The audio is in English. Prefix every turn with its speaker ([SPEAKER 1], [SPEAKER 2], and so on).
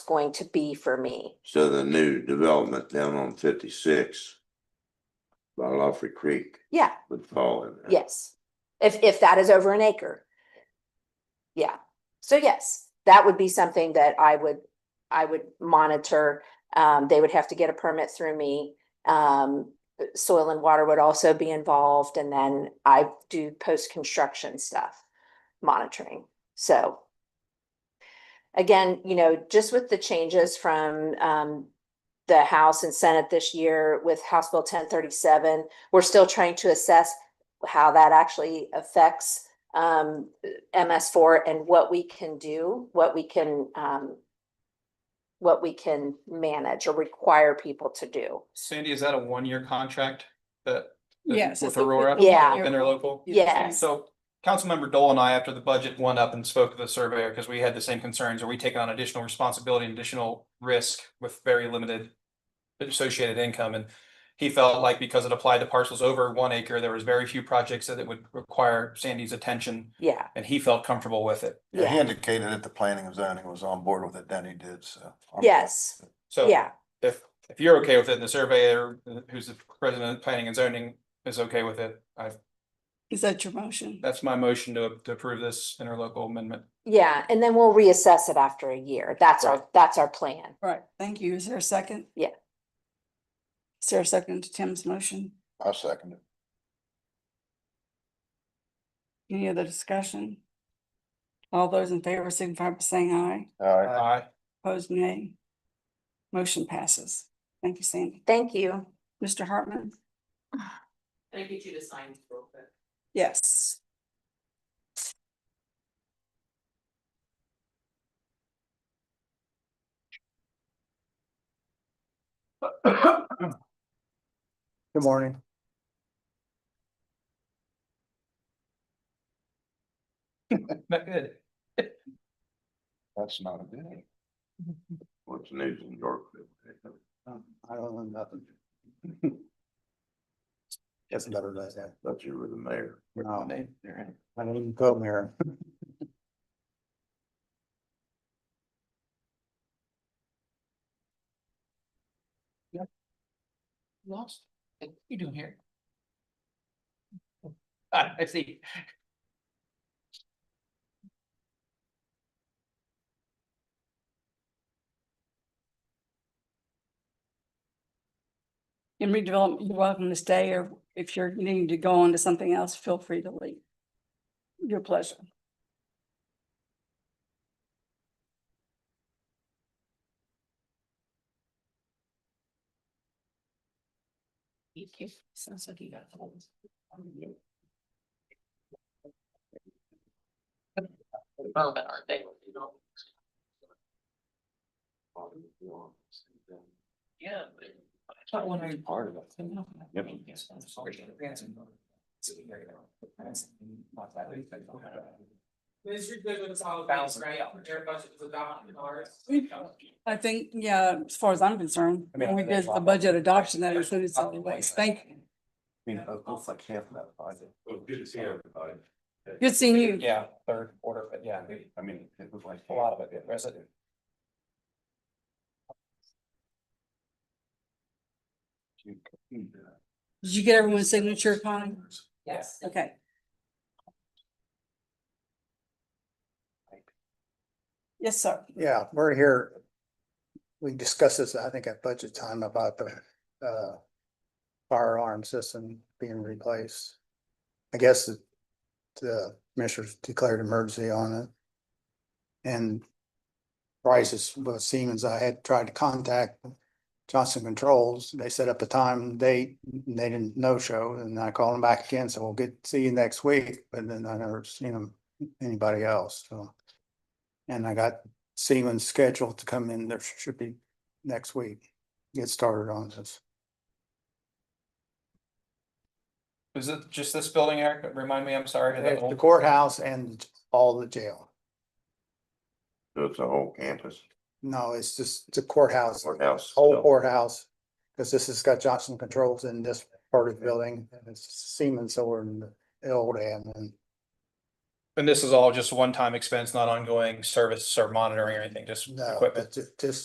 [SPEAKER 1] going to be for me.
[SPEAKER 2] So the new development down on fifty-six. By Lawfrey Creek
[SPEAKER 1] Yeah,
[SPEAKER 2] would fall in. there.
[SPEAKER 1] yes. If, if that is over an acre. Yeah, so yes, that would be something that I would, I would monitor. Um, they would have to get a permit through me. Um, soil and water would also be involved and then I do post-construction stuff, monitoring, so. Again, you know, just with the changes from, um, the House and Senate this year with House Bill ten thirty-seven, we're still trying to assess how that actually affects um MS four and what we can do, what we can um what we can manage or require people to do.
[SPEAKER 3] Sandy, is that a one-year contract that? that-
[SPEAKER 4] Yes.
[SPEAKER 3] With Aurora?
[SPEAKER 1] Yeah.
[SPEAKER 3] Interlocal?
[SPEAKER 1] Yes.
[SPEAKER 3] So Councilmember Dole and I, after the budget went up and spoke to the surveyor, because we had the same concerns, are we taking on additional responsibility and additional risk with very limited associated income? And he felt like because it applied to parcels over one acre, there was very few projects that it would require Sandy's attention,
[SPEAKER 1] Yeah,
[SPEAKER 3] and he felt comfortable with it.
[SPEAKER 5] Yeah, he
[SPEAKER 1] Yeah.
[SPEAKER 5] indicated that the planning and zoning was on board with it, then he did, so. I'm-
[SPEAKER 1] yes,
[SPEAKER 3] So
[SPEAKER 1] yeah,
[SPEAKER 3] if, if you're okay with it, and the surveyor, who's the president of planning and zoning, is okay with it, I
[SPEAKER 4] Is that your motion?
[SPEAKER 3] That's my motion to, to approve this interlocal amendment.
[SPEAKER 1] yeah. And then we'll reassess it after a year. That's our, that's our plan.
[SPEAKER 4] Right, thank you. Is there a second?
[SPEAKER 1] Yeah.
[SPEAKER 4] Is there a second to Tim's motion?
[SPEAKER 5] I second it.
[SPEAKER 4] Any other discussion? All those in favor signify by saying aye,
[SPEAKER 5] All right,
[SPEAKER 3] Aye.
[SPEAKER 4] opposed nay. Motion passes. Thank you, Sandy.
[SPEAKER 1] Thank you.
[SPEAKER 4] Mr. Hartman?
[SPEAKER 6] Can I get you to sign real quick?
[SPEAKER 4] Yes.
[SPEAKER 7] Good morning.
[SPEAKER 3] Not good.
[SPEAKER 5] that's not a bid.
[SPEAKER 2] What's news in Yorkville?
[SPEAKER 7] Um, I don't know nothing. It's better than that.
[SPEAKER 2] Thought you were the mayor.
[SPEAKER 7] No, I don't even come here.
[SPEAKER 3] Lost. What are you doing here? Ah, I see.
[SPEAKER 4] In redevelopment, you're welcome to stay, or if you're needing to go on to something else, feel free to leave. Your pleasure.
[SPEAKER 6] Sounds like you got holes. Development, aren't they? Yeah. but I thought when I-
[SPEAKER 5] Part of it. Yep.
[SPEAKER 6] Yes, I'm sorry. This is good with solid base, right? Air budget was a thousand dollars.
[SPEAKER 4] I think, yeah, as far as I'm concerned,
[SPEAKER 5] I mean,
[SPEAKER 4] when we
[SPEAKER 5] I
[SPEAKER 4] did
[SPEAKER 5] think-
[SPEAKER 4] the budget adoption, that included solid waste. Thank you.
[SPEAKER 5] You know, it's like half that budget.
[SPEAKER 8] Oh, good to see everybody.
[SPEAKER 4] Good seeing you.
[SPEAKER 3] Yeah, third order, but yeah,
[SPEAKER 5] I mean, it was like.
[SPEAKER 3] a lot of it, yeah, residue.
[SPEAKER 4] Did you get everyone's signature, Connie?
[SPEAKER 6] Yes.
[SPEAKER 4] Okay. Yes, sir.
[SPEAKER 7] Yeah, we're here. We discussed this, I think at budget time about the uh fire alarm system being replaced. I guess the- the commissioners declared emergency on it. And prices with Siemens, I had tried to contact Johnson Controls. They set up a time and date, and they didn't no show, and I called them back again, so we'll get, see you next week, but then I never seen them, anybody else, so. And I got Siemens scheduled to come in, there should be next week, get started on this.
[SPEAKER 3] Is it just this building, Eric? Remind me, I'm sorry. that
[SPEAKER 7] The
[SPEAKER 3] old-
[SPEAKER 7] courthouse and all the jail.
[SPEAKER 2] So it's a whole campus
[SPEAKER 7] No, it's just the courthouse,
[SPEAKER 2] courthouse.
[SPEAKER 7] whole courthouse, because this has got Johnson Controls in this part of the building, and it's Siemens over in the old end, and
[SPEAKER 3] And this is all just one-time expense, not ongoing service or monitoring or anything, just
[SPEAKER 7] No,
[SPEAKER 3] equipment.
[SPEAKER 7] but ju- just